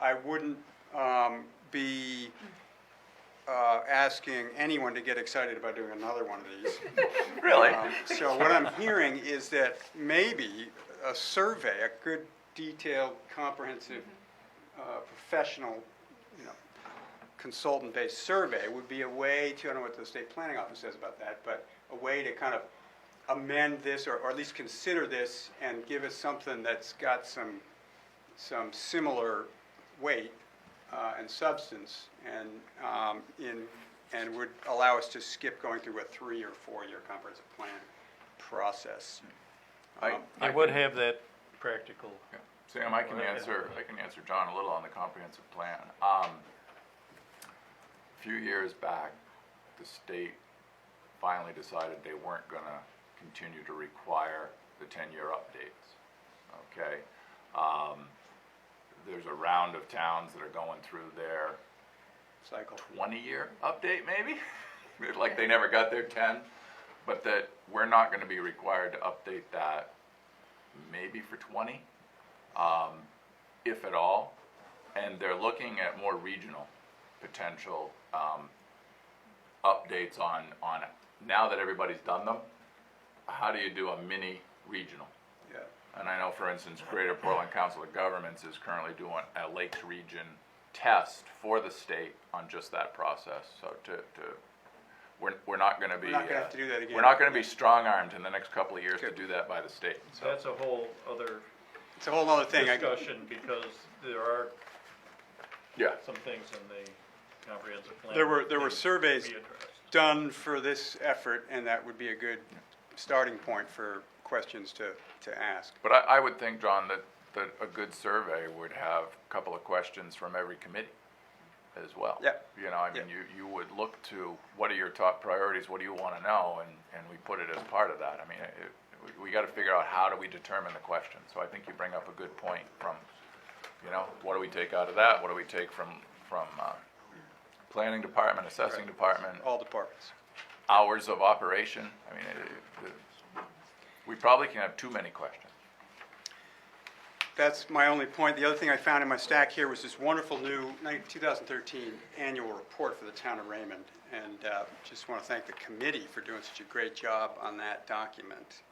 I wouldn't um, be uh, asking anyone to get excited about doing another one of these. Really? Um, So what I'm hearing is that maybe a survey, a good detailed, comprehensive, uh, professional, you know, consultant-based survey would be a way to, I don't know what the state planning office says about that, but a way to kind of amend this or, or at least consider this and give us something that's got some, some similar weight, uh, and substance and, um, in, and would allow us to skip going through a three or four-year comprehensive plan process. I, Um, I I would would have that practical. Yeah. Sam, I can Well, I- answer, I can answer John a little on the comprehensive plan. Um, a few years back, the state finally decided they weren't gonna continue to require the ten-year updates, okay? Um, there's a round of towns that are going through there Cycle. twenty-year update, maybe? Like they never got their ten, but that we're not gonna be required to update that maybe for twenty, um, if at all. And they're looking at more regional potential, um, updates on, on, now that everybody's done them, how do you do a mini regional? Yeah, And I know, for instance, Greater Portland Council of Governments is currently doing a Lakes Region test for the state on just that process, so to, to, we're, we're not gonna be. We're not gonna uh, have to do that again. We're not gonna be strong-armed in the next couple of years to Good. do that by the state, so. That's a whole other it's a whole other thing. I- discussion because there are Yeah, some things in the comprehensive plan. There were, that there were need to surveys be addressed. done for this effort, and that would be a good starting point for questions to, to ask. but I, I would think, John, that, that a good survey would have a couple of questions from every committee as well. Yeah. You know, I mean, you, you would look to, what are your top priorities, what do you wanna know, and, and we put it as part of that, I mean, it, we- we gotta figure out how do we determine the question, so I think you bring up a good point from, you know, what do we take out of that, what do we take from, from, uh, planning department, assessing department, All departments. hours of operation, I mean, it, it- it, we probably can have too many questions. That's my only point. The other thing I found in my stack here was this wonderful new 19- 2013 annual report for the town of Raymond. And uh, just want to thank the committee for doing such a great job on that document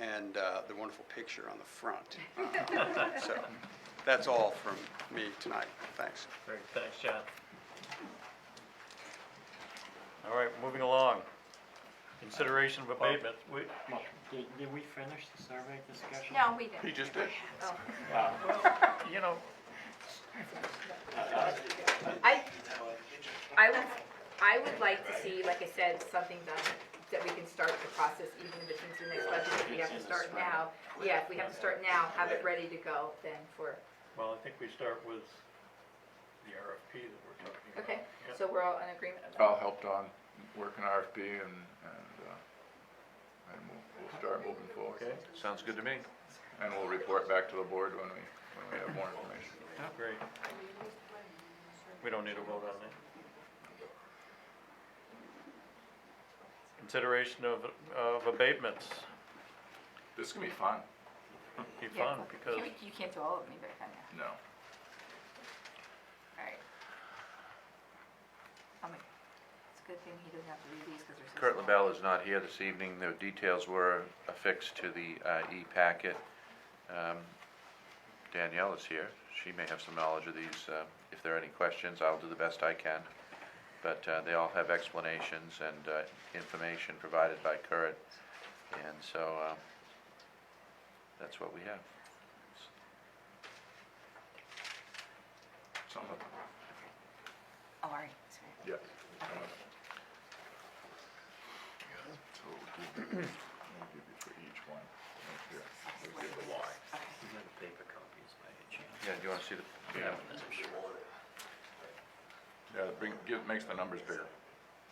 and uh, the wonderful picture on the front. Uh, So that's all from me tonight. Thanks. Great, thanks, John. All right, moving along. Consideration of abatement, we, Did, did we finish the survey discussion? No, we didn't. He just did. Oh. you know, I, I would, I would like to see, like I said, something done, that we can start the process, even if it's into the next budget, if we have to start now. Yeah, if we have to start now, have it ready to go then for, well, I think we start with the RFP that we're talking about. okay? Yep. So we're all in agreement Oh, about I'll help Don work an RFP and, and, uh, and we'll, we'll start moving forward. Okay. Sounds good to me. And we'll report back to the board when we, when we have more information. Great. We don't need a vote on that. Consideration of, of abatements, This can be fun. be Yeah, fun, because You you can't do all of them either, can you? No. All right. I'm like, It's a good thing he doesn't have to read these because there's. Kurt LaBelle is not here this evening. The details were affixed to the uh, e-packet. Um, Danielle is here. She may have some knowledge of these. uh, If there are any questions, I'll do the best I can. But uh, they all have explanations and uh, information provided by Kurt. And so uh, that's what we have. Some of them, Oh, all right. sorry. yes. some of them. So we'll give you- we'll give you for each one, right here. We'll give the why. paper copies by any chance? Yeah, do you want to see the? yeah. Yeah, bring, give, makes the numbers bigger.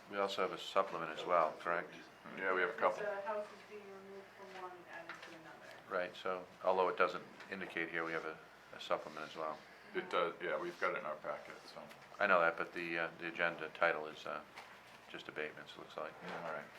We also have a supplement as well, correct? Yeah, we have a couple. The house is uh, being removed from one and added to another. Right, so although it doesn't indicate here, we have a a supplement as well. It does, yeah, we've got it in our packet, so. I know that, but the, uh, the agenda title is, uh, just abatements, it looks like. All right.